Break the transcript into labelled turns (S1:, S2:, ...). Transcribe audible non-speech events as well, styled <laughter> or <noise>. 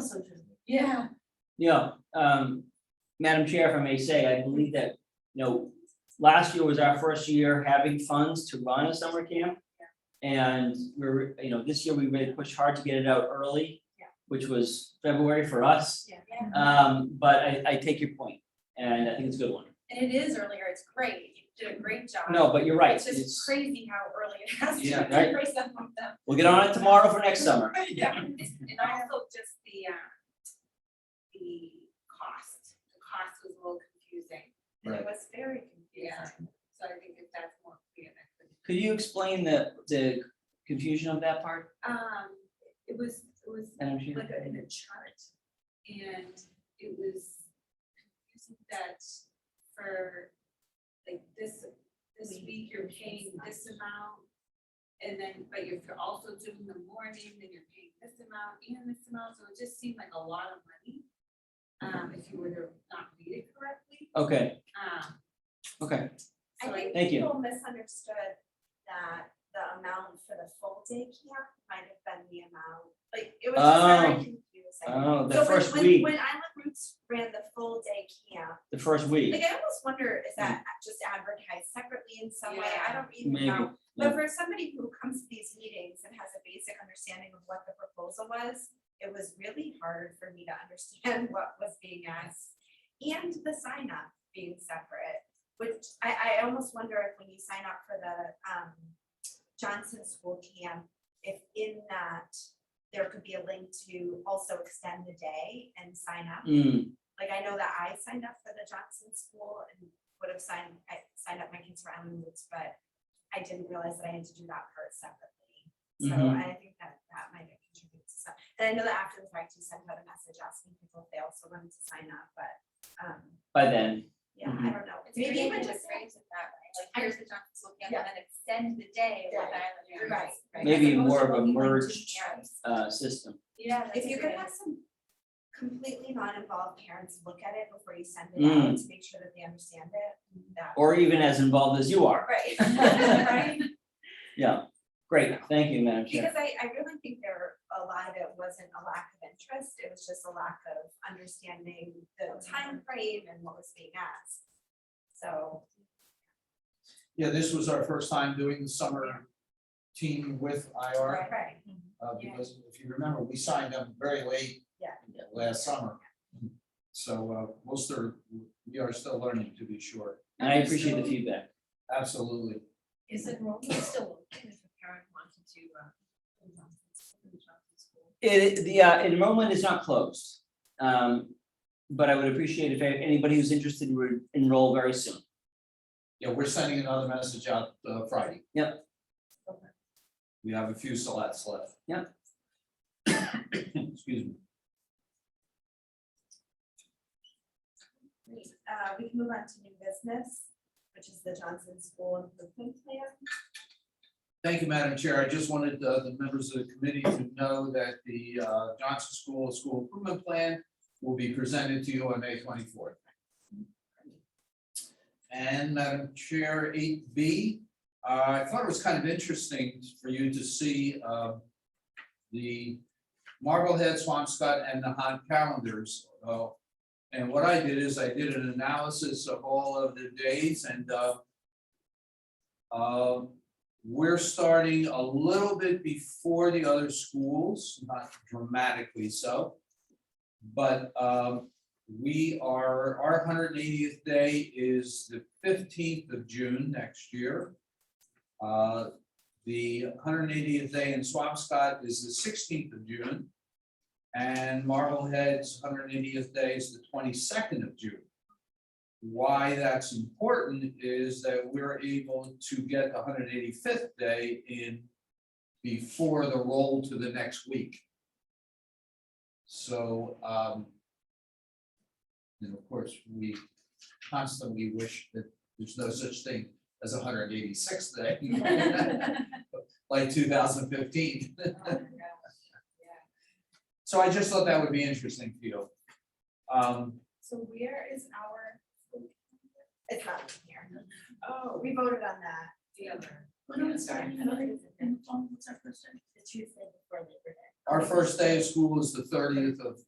S1: so true. Yeah.
S2: You know, um, Madam Chair, if I may say, I believe that, you know, last year was our first year having funds to run a summer camp. And we're, you know, this year we really pushed hard to get it out early.
S1: Yeah.
S2: Which was February for us,
S1: Yeah.
S2: um, but I, I take your point, and I think it's a good one.
S1: And it is earlier, it's great, you did a great job.
S2: No, but you're right,
S1: It's just
S2: it's,
S1: crazy how early it has to
S2: Yeah,
S1: be for some of
S2: <laughs>
S1: them.
S2: we'll get on it tomorrow for next summer.
S1: Yeah, and also just the, uh, the cost, the cost was a little confusing.
S2: Right.
S1: It was very confusing, so I think if that's more clear, that could.
S2: Could you explain the, the confusion of that part,
S1: Um, it was, it was
S2: Madam Chair?
S1: like a, in a chart, and it was confusing that for, like, this, this week you're paying this amount, and then, but you're also doing the morning, then you're paying this amount and this amount, so it just seemed like a lot of money, um, if you were to not read it correctly,
S2: Okay,
S1: um,
S2: okay,
S1: so
S3: I
S1: like,
S2: thank
S3: think
S2: you.
S3: people misunderstood that the amount for the full day camp might have been the amount, like, it was just very
S2: Oh.
S3: confusing.
S2: oh,
S3: So
S2: the
S3: when-
S2: first
S3: when-
S2: week,
S3: When Island Roots ran the full day camp,
S2: the first week,
S3: like, I almost wonder, is that just advertised separately in some way? I don't even
S2: Maybe,
S3: know.
S2: yeah.
S3: But for somebody who comes to these meetings and has a basic understanding of what the proposal was, it was really hard for me to understand <laughs> what was being asked. And the sign up being separate, which I, I almost wonder if when you sign up for the, um, Johnson School Camp, if in that there could be a link to also extend the day and sign up.
S2: Mm,
S3: Like I know that I signed up for the Johnson School and would have signed, I signed up my kids for Island Roots, but I didn't realize that I had to do that part separately. So
S2: Mhm.
S3: I think that that might have contributed to some, and I know that after the fact, you sent out a message asking people if they also wanted to sign up, but, um,
S2: by then,
S3: yeah,
S2: Mhm.
S3: I don't know.
S4: It's
S3: Maybe
S4: great
S3: even
S4: to
S3: just.
S4: phrase it that way, like
S3: I-
S4: here's the Johnson School camp
S3: Yeah.
S4: and then extend the day with
S3: Day.
S4: Island Roots.
S3: Right, right.
S2: Maybe
S3: As opposed
S2: more
S3: to
S2: of a
S3: only one, two
S2: merged-
S3: camps.
S2: uh, system.
S4: Yeah.
S3: If
S4: that's
S3: you're
S4: a
S3: gonna
S4: great-
S3: have some completely non-involved parents look at it before you send it out to make sure that they understand it, that.
S2: Mm. Or even as involved as you are.
S3: <laughs> Right. <laughs>
S4: Right.
S2: Yeah, great, thank you, Madam Chair.
S3: Because I, I really think there, a lot of it wasn't a lack of interest, it was just a lack of understanding the time frame and what was being asked. So,
S5: Yeah, this was our first time doing the summer team with IR,
S3: right,
S5: uh, because if you remember, we signed up very late.
S3: Yeah.
S5: Last summer. So, uh, most are, we are still learning, to be sure.
S2: And I appreciate the feedback.
S5: Absolutely.
S1: is enrollment still open if a parent wanted to, uh, school?
S2: It, the uh, enrollment is not closed. Um, but I would appreciate if anybody who's interested would enroll very soon.
S5: Yeah, we're sending another message out, uh, Friday.
S2: Yep.
S3: Okay.
S5: We have a few slots left.
S2: Yep.
S5: <coughs> Excuse me.
S3: Great. uh, we can move on to new business, which is the Johnson School Improvement Plan.
S5: Thank you, Madam Chair. I just wanted uh, the members of the committee to know that the uh, Johnson School School Improvement Plan will be presented to you on May twenty-fourth. And Madam Chair, eight B, uh, I thought it was kind of interesting for you to see uh, the Marblehead, Swampscott, and the Han calendars. Uh, And what I did is I did an analysis of all of the days and uh, um, we're starting a little bit before the other schools, not dramatically so. But um, we are, our hundred and eightieth day is the fifteenth of June next year. Uh, The hundred and eightieth day in Swampscott is the sixteenth of June. And Marblehead's hundred and eightieth day is the twenty-second of June why that's important is that we're able to get the hundred eighty-fifth day in before the roll to the next week. So, um, and of course, we constantly wish that there's no such thing as a hundred eighty-sixth day. Like two thousand fifteen. So I just thought that would be interesting for you. Um,
S3: So where is our? It's not in here. Oh. We voted on that.
S1: The other.
S3: The Tuesday before Labor Day.
S5: Our first day of school is the thirtieth of